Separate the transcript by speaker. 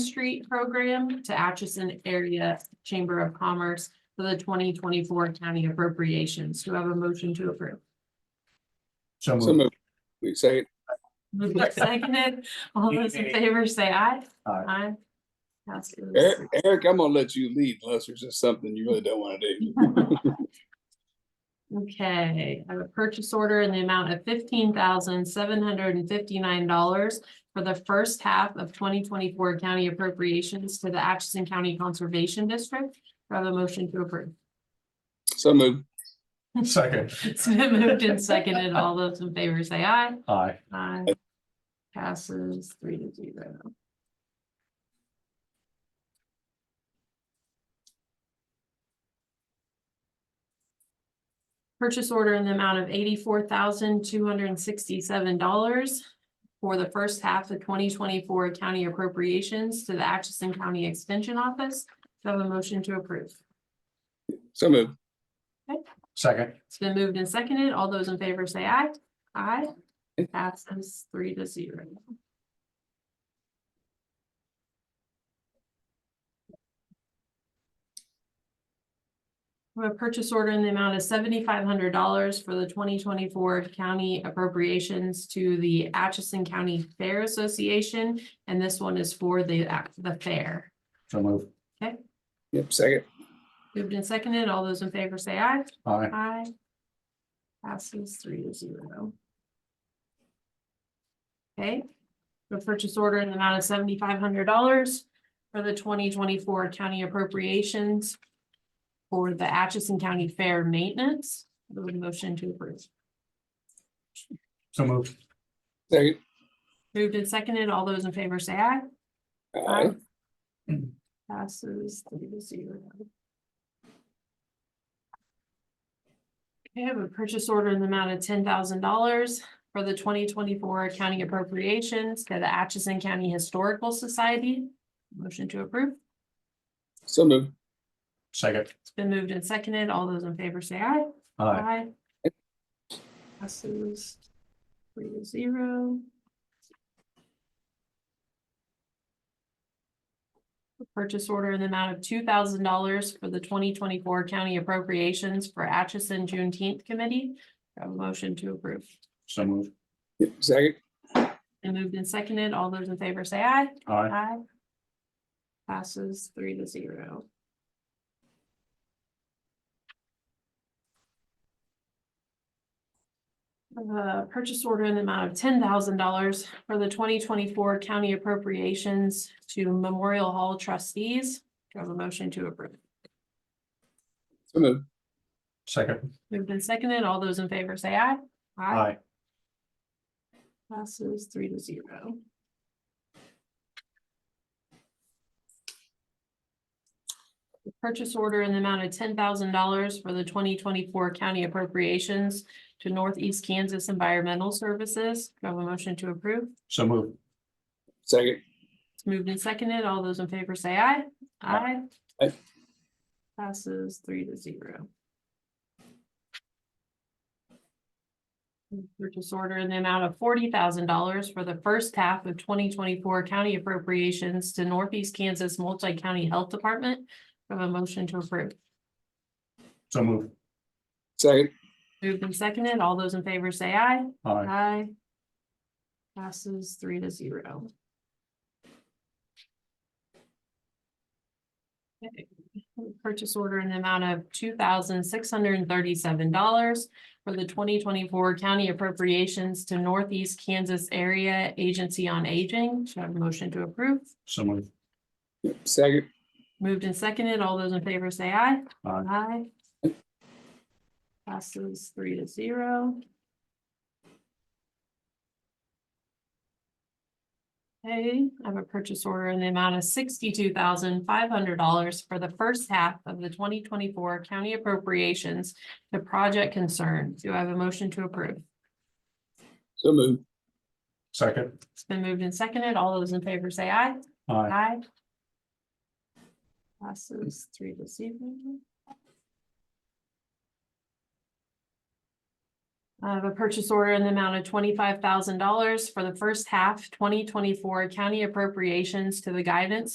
Speaker 1: Street Program to Atchison Area Chamber of Commerce for the twenty twenty-four county appropriations. Do I have a motion to approve?
Speaker 2: So
Speaker 3: So
Speaker 2: moved.
Speaker 3: moved. We second.
Speaker 1: Moved and seconded. All those in favor say aye.
Speaker 2: Aye.
Speaker 1: Passes.
Speaker 3: Eric, Eric, I'm gonna let you lead unless there's just something you really don't wanna do.
Speaker 1: Okay, I have a purchase order in the amount of fifteen thousand seven hundred and fifty-nine dollars for the first half of twenty twenty-four county appropriations to the Atchison County Conservation District. Do I have a motion to approve?
Speaker 3: So moved.
Speaker 2: Second,
Speaker 1: It's been moved and seconded. All those in favor say aye.
Speaker 2: aye.
Speaker 1: Aye. Passes three to zero. Purchase order in the amount of eighty-four thousand, two hundred and sixty-seven dollars for the first half of twenty twenty-four county appropriations to the Atchison County Extension Office. Do I have a motion to approve?
Speaker 3: So moved.
Speaker 2: Second,
Speaker 1: It's been moved and seconded. All those in favor say aye. Aye. Passes three to zero. We have a purchase order in the amount of seventy-five hundred dollars for the twenty twenty-four county appropriations to the Atchison County Fair Association. And this one is for the, the fair.
Speaker 2: so moved.
Speaker 3: Yep, second.
Speaker 1: Moved and seconded. All those in favor say aye.
Speaker 2: Aye.
Speaker 1: Aye. Passes three to zero. Okay, the purchase order in the amount of seventy-five hundred dollars for the twenty twenty-four county appropriations for the Atchison County Fair Maintenance. The motion to approve.
Speaker 2: So moved.
Speaker 3: Second.
Speaker 1: Moved and seconded. All those in favor say aye.
Speaker 3: Aye.
Speaker 1: Um, Passes three to zero. Okay, I have a purchase order in the amount of ten thousand dollars for the twenty twenty-four county appropriations to the Atchison County Historical Society. Motion to approve.
Speaker 3: So moved.
Speaker 2: Second,
Speaker 1: It's been moved and seconded. All those in favor say aye.
Speaker 2: aye.
Speaker 1: Aye. Passes three to zero. Purchase order in the amount of two thousand dollars for the twenty twenty-four county appropriations for Atchison Juneteenth Committee. Do I have a motion to approve.
Speaker 2: So moved.
Speaker 3: Yep, second.
Speaker 1: And moved and seconded. All those in favor say aye.
Speaker 2: Aye.
Speaker 1: Aye. Passes three to zero. The purchase order in the amount of ten thousand dollars for the twenty twenty-four county appropriations to Memorial Hall trustees. Do I have a motion to approve?
Speaker 3: So moved.
Speaker 2: Second,
Speaker 1: Moved and seconded. All those in favor say aye.
Speaker 2: aye.
Speaker 1: Passes three to zero. The Purchase order in the amount of ten thousand dollars for the twenty twenty-four county appropriations to Northeast Kansas Environmental Services. Do I have a motion to approve?
Speaker 2: So moved.
Speaker 3: Second.
Speaker 1: It's moved and seconded. All those in favor say aye. Aye.
Speaker 2: Aye.
Speaker 3: Aye.
Speaker 1: Passes three to zero. Purchase order in the amount of forty thousand dollars for the first half of twenty twenty-four county appropriations to Northeast Kansas Multi-County Health Department. Do I Have a motion to approve.
Speaker 2: So moved.
Speaker 3: Second.
Speaker 1: Moved and seconded. All those in favor say aye.
Speaker 2: Aye.
Speaker 1: Aye. Passes three to zero. Okay. Purchase order in the amount of two thousand six hundred and thirty-seven dollars for the twenty twenty-four county appropriations to Northeast Kansas Area Agency on Aging. Should I have a motion to approve?
Speaker 2: So moved.
Speaker 3: Yep, second.
Speaker 1: Moved and seconded. All those in favor say aye.
Speaker 2: Aye.
Speaker 1: Aye. Passes three to zero. Okay, I have a purchase order in the amount of sixty-two thousand five hundred dollars for the first half of the twenty twenty-four county appropriations to Project Concern. Do I have a motion to approve?
Speaker 3: So moved.
Speaker 2: Second,
Speaker 1: It's been moved and seconded. All those in favor say aye.
Speaker 2: aye.
Speaker 1: Aye. Passes three to zero. I have a purchase order in the amount of twenty-five thousand dollars for the first half twenty twenty-four county appropriations to the guidance